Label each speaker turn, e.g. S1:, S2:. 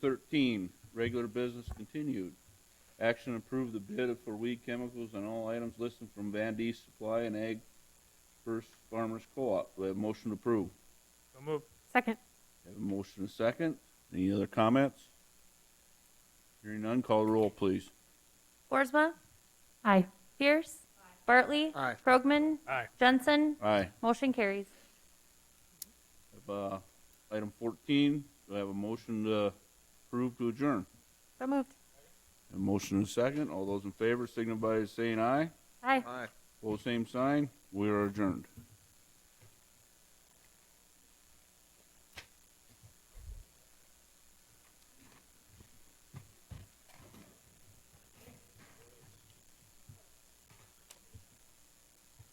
S1: Thirteen, regular business continued. Action approved the bid for weed chemicals and all items listed from Van D Supply and Ag First Farmers Co-op. Do I have a motion to approve?
S2: So moved.
S3: Second.
S1: Have a motion and a second. Any other comments? Hearing none, call the roll, please.
S4: Boersma,
S3: Aye.
S4: Pierce, Bartley,
S2: Aye.
S4: Krogman,
S2: Aye.
S4: Jensen,
S1: Aye.
S4: motion carries.
S1: Have, uh, item fourteen, do I have a motion to approve to adjourn?
S3: So moved.
S1: A motion and a second. All those in favor signify by saying aye.
S3: Aye.
S2: Aye.
S1: Pose same sign. We are adjourned.